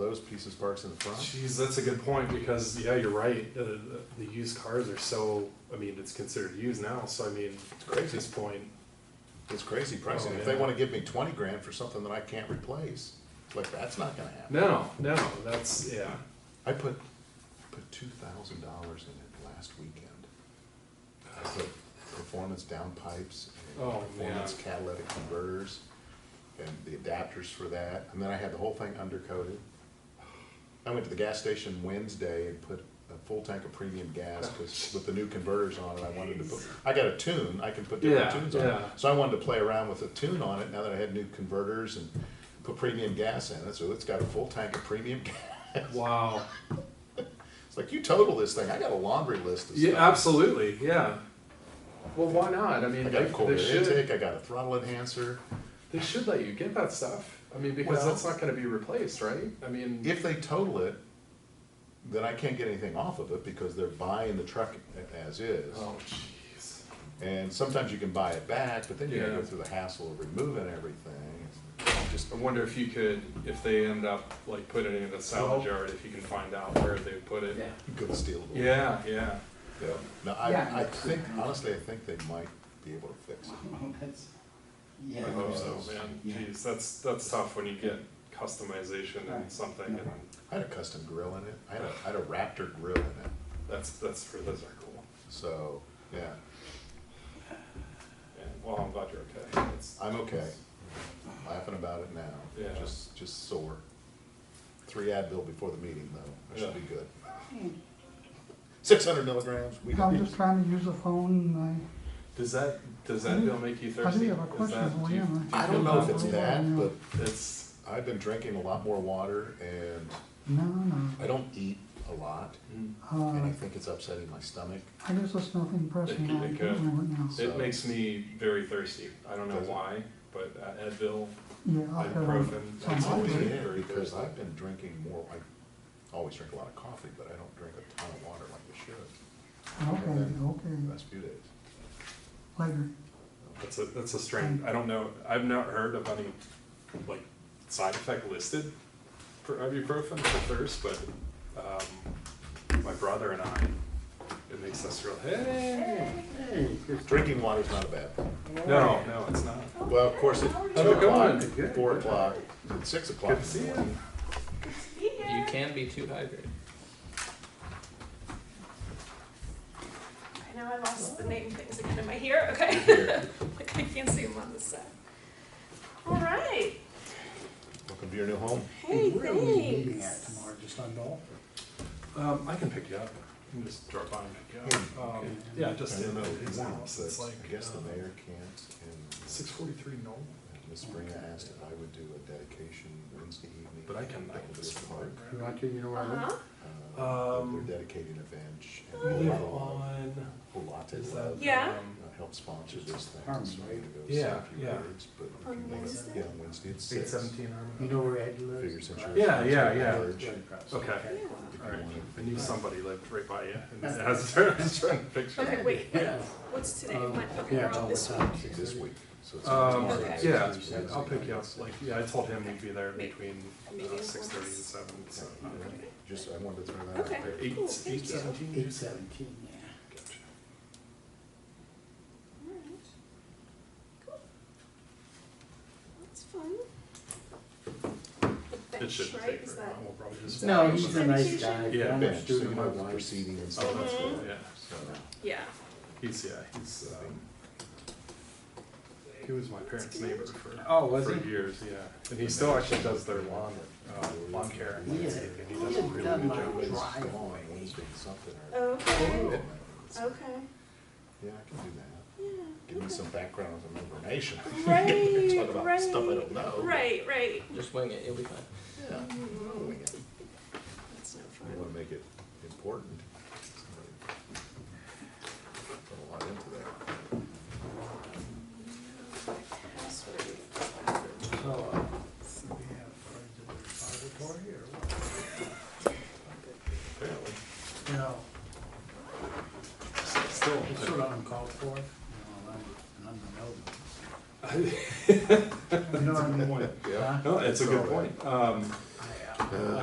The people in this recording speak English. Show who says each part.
Speaker 1: those pieces parked in the front?
Speaker 2: Jeez, that's a good point because yeah, you're right. Uh, the, the used cars are so. I mean, it's considered used now. So I mean, at
Speaker 1: crazy.
Speaker 2: this point,
Speaker 1: It's crazy pricing.
Speaker 2: Oh,
Speaker 1: If they
Speaker 2: yeah.
Speaker 1: wanna give me twenty grand for something that I can't replace, it's like, that's not gonna happen.
Speaker 2: no, no, that's yeah.
Speaker 1: I put, put two thousand dollars in it last weekend. I put performance downpipes and
Speaker 2: Oh,
Speaker 1: performance
Speaker 2: man.
Speaker 1: catalytic converters and the adapters for that, and then I had the whole thing undercoated. I went to the gas station Wednesday and put a full tank of premium gas,
Speaker 2: Oh,
Speaker 1: cause with the new converters on it, I wanted to put, I got a tune, I can put different
Speaker 2: Yeah,
Speaker 1: tunes on it.
Speaker 2: yeah.
Speaker 1: So I wanted to play around with a tune on it now that I had new converters and put premium gas in it, so it's got a full tank of premium gas.
Speaker 2: Wow.
Speaker 1: It's like you total this thing. I got a laundry list of
Speaker 2: Yeah,
Speaker 1: stuff.
Speaker 2: absolutely. Yeah. Well, why not? I mean,
Speaker 1: I got a
Speaker 2: they,
Speaker 1: cold
Speaker 2: they
Speaker 1: air
Speaker 2: should
Speaker 1: intake. I got a throttle enhancer.
Speaker 2: they should let you get that stuff. I mean, because
Speaker 1: Well-
Speaker 2: that's not going to be replaced, right? I mean,
Speaker 1: If they total it, then I can't get anything off of it because they're buying the truck as is.
Speaker 2: oh jeez.
Speaker 1: And sometimes you can buy it back, but then you gotta
Speaker 3: Yeah.
Speaker 1: go through the hassle of removing everything.
Speaker 3: Just, I wonder if you could, if they end up like putting it in a salvage yard, if you can find out where they put it.
Speaker 1: Good stealable.
Speaker 3: Yeah, yeah.
Speaker 1: Yeah. No, I,
Speaker 4: Yeah.
Speaker 1: I think, honestly, I think they might be able to fix it.
Speaker 4: Well, that's,
Speaker 3: I
Speaker 4: yeah.
Speaker 3: hope so, man.
Speaker 4: Yeah.
Speaker 3: Jeez, that's, that's tough when you get customization and
Speaker 4: Right.
Speaker 3: something and
Speaker 1: I had a custom grill in it. I had a, I had a Raptor grill in it.
Speaker 3: that's, that's, for- those are cool.
Speaker 1: So, yeah,
Speaker 3: Yeah, well, I'm glad you're okay. That's-
Speaker 1: I'm okay. Laughing about it now.
Speaker 3: Yeah.
Speaker 1: Just, just sore. Three Advil before the meeting, though. I should be
Speaker 3: Yeah.
Speaker 1: good. Six hundred milligrams. We
Speaker 5: I'm just trying to use the phone and
Speaker 3: Does that, does that bill make you
Speaker 5: I, I do
Speaker 3: thirsty?
Speaker 5: have a
Speaker 3: Is
Speaker 5: question
Speaker 3: that-
Speaker 5: for
Speaker 3: do you-
Speaker 5: you.
Speaker 3: do you
Speaker 1: I
Speaker 3: feel
Speaker 1: don't know if
Speaker 3: that
Speaker 1: it's
Speaker 3: way?
Speaker 1: that, but
Speaker 3: It's,
Speaker 1: I've been drinking a lot more water and
Speaker 5: No, no.
Speaker 1: I don't eat a lot.
Speaker 3: Mm.
Speaker 1: And I
Speaker 5: Uh,
Speaker 1: think it's upsetting my stomach.
Speaker 5: I guess there's nothing pressing.
Speaker 3: It- it
Speaker 5: I can't
Speaker 3: could.
Speaker 5: remember now.
Speaker 3: it makes me very thirsty. I don't know
Speaker 1: Does it?
Speaker 3: why, but uh, Advil,
Speaker 5: Yeah, I'll have one.
Speaker 3: ibuprofen.
Speaker 1: It's
Speaker 3: that's
Speaker 5: might
Speaker 3: always
Speaker 1: always
Speaker 3: very
Speaker 1: it because
Speaker 3: thirsty.
Speaker 1: I've been drinking more, I always drink a lot of coffee, but I don't drink a ton of water like I should.
Speaker 5: Okay,
Speaker 1: The
Speaker 5: okay,
Speaker 1: last few days.
Speaker 5: later.
Speaker 3: That's a that's a strange. I don't know. I've not heard of any like side effect listed for ibuprofen for thirst, but um, my brother and I, it makes us real. Hey,
Speaker 1: Drinking water's not a bad thing.
Speaker 3: no, no, it's not.
Speaker 1: Well, of course, at
Speaker 3: it
Speaker 1: two o'clock,
Speaker 3: going? Good,
Speaker 1: four
Speaker 3: good.
Speaker 1: o'clock, and six o'clock.
Speaker 3: Good to see you.
Speaker 6: You can be too hydrated.
Speaker 7: I know I lost the name things again. Am I here? Okay.
Speaker 1: Here.
Speaker 7: like I can't see them on the set. All right.
Speaker 1: Welcome to your new home.
Speaker 7: Hey,
Speaker 4: Where are we meeting at
Speaker 7: thanks.
Speaker 4: tomorrow, just on Dolphin?
Speaker 3: Um, I can pick you up. You can just drop by and pick you up. Um, yeah,
Speaker 1: Hmm.
Speaker 3: just
Speaker 1: I
Speaker 3: in
Speaker 1: don't know,
Speaker 3: his
Speaker 1: one,
Speaker 3: house.
Speaker 1: but
Speaker 3: It's like
Speaker 1: I guess the
Speaker 3: uh,
Speaker 1: mayor can't,
Speaker 3: Six forty-three Nolan.
Speaker 1: and Ms. Spring asked if I would do a dedication Wednesday evening.
Speaker 3: But I can I
Speaker 1: at
Speaker 3: can
Speaker 1: Elvis
Speaker 3: just
Speaker 1: Park.
Speaker 5: You like it, you know
Speaker 7: Uh huh.
Speaker 1: Uh,
Speaker 3: Um,
Speaker 1: They're dedicating a bench. and
Speaker 3: We live
Speaker 1: Pilates-
Speaker 3: on.
Speaker 1: Pilates
Speaker 3: Is
Speaker 1: Love,
Speaker 3: that?
Speaker 7: Yeah.
Speaker 3: um,
Speaker 1: uh, Help sponsor this thing, so I'm
Speaker 4: Harmon,
Speaker 1: gonna
Speaker 4: right?
Speaker 1: go say
Speaker 3: Yeah,
Speaker 1: a few
Speaker 3: yeah.
Speaker 1: words, but. if
Speaker 7: On
Speaker 1: you want-
Speaker 7: Wednesday?
Speaker 1: Yeah, on Wednesday at
Speaker 3: Eight
Speaker 1: six.
Speaker 3: seventeen.
Speaker 4: You know where Ed lives?
Speaker 1: Figure since you're.
Speaker 3: Yeah, yeah,
Speaker 1: since you're
Speaker 3: yeah.
Speaker 1: large,
Speaker 4: Right
Speaker 1: if
Speaker 4: across.
Speaker 1: you
Speaker 3: Okay. All right.
Speaker 1: wanna-
Speaker 3: I knew somebody lived right by you, and it has a certain picture.
Speaker 7: Okay, wait. What's today? What? Okay,
Speaker 4: Um, Yeah,
Speaker 7: we're
Speaker 4: it's
Speaker 7: on
Speaker 4: all the
Speaker 7: this one.
Speaker 4: time.
Speaker 1: This week, so it's.
Speaker 3: Um,
Speaker 1: tomorrow.
Speaker 3: yeah, I'll pick you up. Like, yeah, I told him we'd be there between uh,
Speaker 7: Meeting
Speaker 3: six thirty and seven. So uh,
Speaker 1: Okay. Just, I wanted to throw that out
Speaker 7: Okay.
Speaker 1: there.
Speaker 3: eight,
Speaker 7: Cool,
Speaker 3: eight
Speaker 7: thank you.
Speaker 3: seventeen.
Speaker 4: Eight seventeen, yeah.
Speaker 7: All right. Cool. That's fun. The
Speaker 3: It
Speaker 7: bench,
Speaker 3: shouldn't
Speaker 7: right?
Speaker 3: take
Speaker 7: Is
Speaker 3: very
Speaker 7: that?
Speaker 3: long. We'll probably just
Speaker 4: No, he's a nice
Speaker 7: Sanitation?
Speaker 4: guy.
Speaker 3: Yeah,
Speaker 4: I'm a
Speaker 1: Bench, so you
Speaker 4: student
Speaker 1: know
Speaker 4: of
Speaker 1: the
Speaker 4: mine.
Speaker 1: proceeding and
Speaker 3: Oh,
Speaker 1: stuff.
Speaker 3: that's
Speaker 7: Mm-hmm.
Speaker 3: cool. Yeah,
Speaker 1: So, um,
Speaker 7: Yeah.
Speaker 3: he's yeah, he's um, he was my parents' neighbor for
Speaker 4: Oh, was
Speaker 3: for
Speaker 4: he?
Speaker 3: years. Yeah, and he still actually does their lawn uh, lawn care. and
Speaker 4: We had,
Speaker 3: landscaping. He
Speaker 4: we
Speaker 3: does uh, a really
Speaker 4: had
Speaker 3: good
Speaker 4: done my
Speaker 3: job.
Speaker 1: it's gone
Speaker 4: driveway.
Speaker 1: Wednesday something or.
Speaker 7: Oh. Okay.
Speaker 4: Oh.
Speaker 1: Yeah,
Speaker 7: Okay.
Speaker 1: I can do that.
Speaker 7: Yeah.
Speaker 1: Give me some background and information.
Speaker 7: Right,
Speaker 1: Talk about stuff I don't
Speaker 3: Oh.
Speaker 1: know.
Speaker 7: Right, right.
Speaker 6: Just wing it, you'll be fine.
Speaker 1: Yeah. I
Speaker 7: That's no fun.
Speaker 1: wanna make it important. Put a lot into that.
Speaker 7: Password.
Speaker 4: So, uh, do we have friends in the auditorium or what?
Speaker 3: Apparently,
Speaker 4: You know,
Speaker 3: still.
Speaker 4: it's sort of uncalled for, you know, and I'm, and I'm the nobody. You know what I mean?
Speaker 3: No, it's a good
Speaker 1: So, uh,
Speaker 3: point. Um,
Speaker 4: I, uh,